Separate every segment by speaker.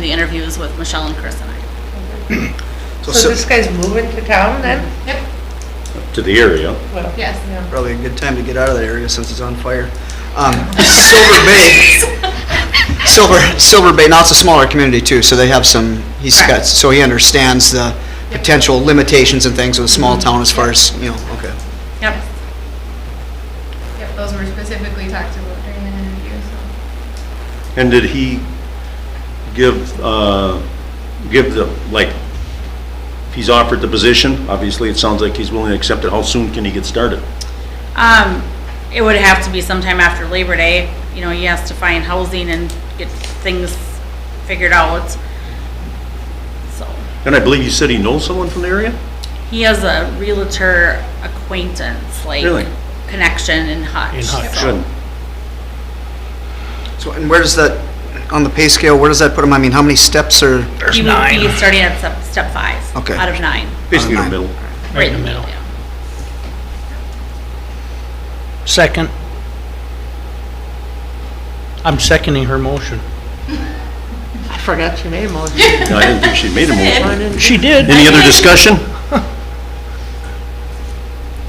Speaker 1: the interviews with Michelle and Chris and I.
Speaker 2: So,
Speaker 3: So this
Speaker 2: so
Speaker 3: guy's moving to town then?
Speaker 4: Yep,
Speaker 5: to the area.
Speaker 3: Well,
Speaker 4: Yes.
Speaker 3: yeah.
Speaker 2: probably a good time to get out of that area since it's on fire. Um, Silver Bay, Silver, Silver Bay, now it's a smaller community too, so they have some, he's got,
Speaker 3: Correct.
Speaker 2: so he understands the potential limitations and things of a small town as far as, you know, okay.
Speaker 1: Yep.
Speaker 4: Yep, those were specifically talked about during the interview, so.
Speaker 5: And did he give, uh, give the, like, he's offered the position, obviously, it sounds like he's willing to accept it, how soon can he get started?
Speaker 1: Um, it would have to be sometime after Labor Day. You know, he has to find housing and get things figured out. So,
Speaker 5: And I believe you said he knows someone from the area?
Speaker 1: he has a realtor acquaintance, like
Speaker 5: Really?
Speaker 1: connection in Hutch.
Speaker 6: In Hutch.
Speaker 1: so-
Speaker 5: Shouldn't.
Speaker 2: So, and where does that, on the pay scale, where does that put him? I mean, how many steps are,
Speaker 1: He would be starting at step, step five.
Speaker 2: Okay.
Speaker 1: Out of nine.
Speaker 5: Basically in the middle.
Speaker 6: Right in the middle.
Speaker 1: yeah.
Speaker 6: Second. I'm seconding her motion.
Speaker 3: I forgot you made a motion.
Speaker 5: No, I didn't think she made a
Speaker 3: I
Speaker 5: motion.
Speaker 3: didn't-
Speaker 6: She did.
Speaker 5: Any other discussion?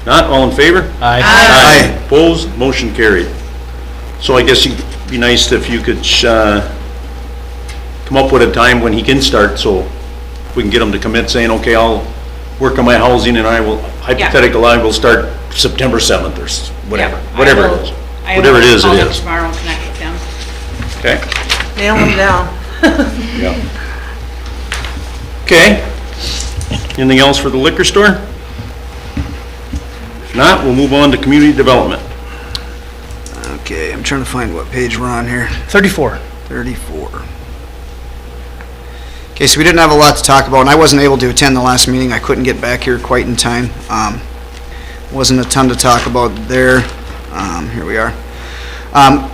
Speaker 5: Not, all in favor?
Speaker 6: Aye.
Speaker 5: Aye. Opposed, motion carried. So I guess it'd be nice if you could, uh, come up with a time when he can start, so we can get him to commit saying, okay, I'll work on my housing and I will, hypothetical, I will start September 7th or s- whatever,
Speaker 1: Yeah, I
Speaker 5: whatever it
Speaker 1: will-
Speaker 5: is.
Speaker 1: I
Speaker 5: Whatever it
Speaker 1: will
Speaker 5: is,
Speaker 1: call
Speaker 5: it
Speaker 1: him
Speaker 5: is.
Speaker 1: Tomorrow and connect with him.
Speaker 5: Okay?
Speaker 3: Nail him down.
Speaker 5: Yeah. Okay. Anything else for the liquor store? If not, we'll move on to community development.
Speaker 2: okay, I'm trying to find what page we're on here.
Speaker 6: 34.
Speaker 2: 34. Okay, so we didn't have a lot to talk about, and I wasn't able to attend the last meeting. I couldn't get back here quite in time. Um, Wasn't a ton to talk about there. Um, Here we are. Um,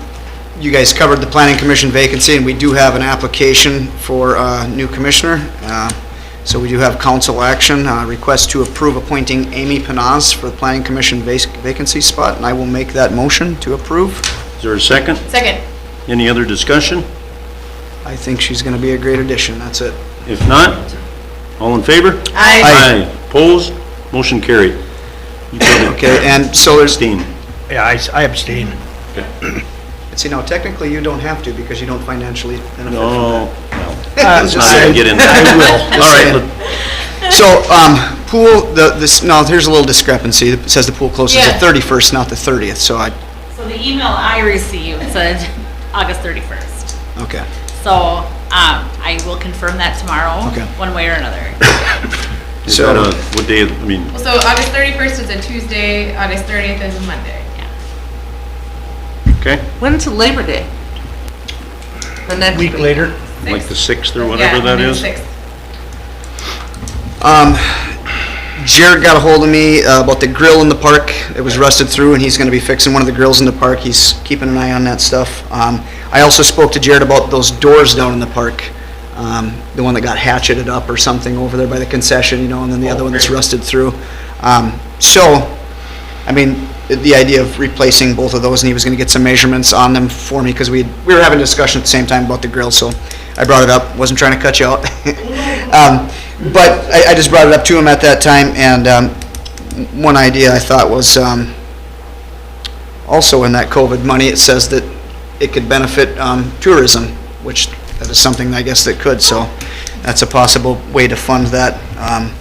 Speaker 2: You guys covered the planning commission vacancy, and we do have an application for a new commissioner. Uh, So we do have council action, uh, request to approve appointing Amy Panaz for the planning commission vac- vacancy spot, and I will make that motion to approve.
Speaker 5: Is there a second?
Speaker 4: Second.
Speaker 5: Any other discussion?
Speaker 2: I think she's going to be a great addition, that's it.
Speaker 5: If not, all in favor?
Speaker 4: I.
Speaker 5: Aye. Opposed? Motion carried. You got it.
Speaker 2: Okay, and so there's,
Speaker 5: Abstain.
Speaker 6: Yeah, I s- I abstain.
Speaker 2: see, now technically you don't have to because you don't financially benefit from that.
Speaker 5: No,
Speaker 6: Uh,
Speaker 5: let's not even get in there.
Speaker 2: I will.
Speaker 5: All right, let-
Speaker 2: So, um, pool, the, this, now, here's a little discrepancy. It says the pool closes the
Speaker 4: Yeah.
Speaker 2: thirty-first, not the thirtieth, so I,
Speaker 1: So the email I received said August 31st.
Speaker 2: okay.
Speaker 1: So um, I will confirm that tomorrow,
Speaker 2: Okay.
Speaker 1: one way or another.
Speaker 5: is that a, what day, I mean,
Speaker 4: So August thirty-first is a Tuesday, August thirtieth is a Monday.
Speaker 5: okay,
Speaker 3: When's Labor Day? The next
Speaker 6: Week later.
Speaker 5: like the 6th or
Speaker 4: Yeah,
Speaker 5: whatever that
Speaker 4: Monday the
Speaker 5: is?
Speaker 4: sixth.
Speaker 2: Um, Jared got a hold of me uh, about the grill in the park. It was rusted through, and he's gonna be fixing one of the grills in the park. He's keeping an eye on that stuff. Um, I also spoke to Jared about those doors down in the park, um, the one that got hatcheted up or something over there by the concession, you know, and then the other one that's rusted through. Um, so, I mean, the idea of replacing both of those, and he was gonna get some measurements on them for me, because we, we were having a discussion at the same time about the grill, so I brought it up, wasn't trying to cut you out. Um, But I, I just brought it up to him at that time, and, um, one idea I thought was, um, also in that COVID money, it says that it could benefit, um, tourism, which that is something, I guess, that could, so that's a possible way to fund that, um,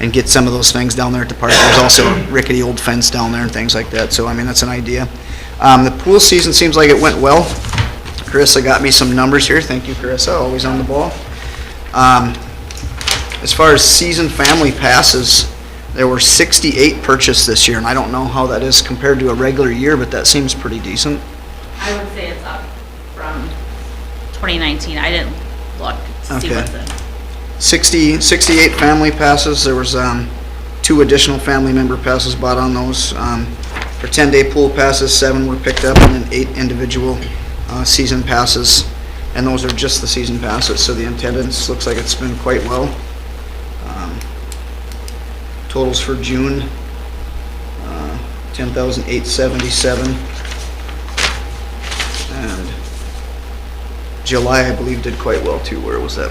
Speaker 2: and get some of those things down there at the park. There's also a rickety old fence down there and things like that, so I mean, that's an idea. Um, the pool season seems like it went well. Carissa got me some numbers here, thank you, Carissa, always on the ball. Um, as far as season family passes, there were sixty-eight purchased this year, and I don't know how that is compared to a regular year, but that seems pretty decent.
Speaker 1: I would say it's up from 2019. I didn't look to see
Speaker 2: Okay.
Speaker 1: what's in.
Speaker 2: 60, 68 family passes, there was, um, two additional family member passes bought on those. Um, For 10-day pool passes, seven were picked up, and then eight individual, uh, season passes. And those are just the season passes, so the attendance looks like it's been quite well. Um, Totals for June, uh, 10,877. And July, I believe, did quite well too. Where was that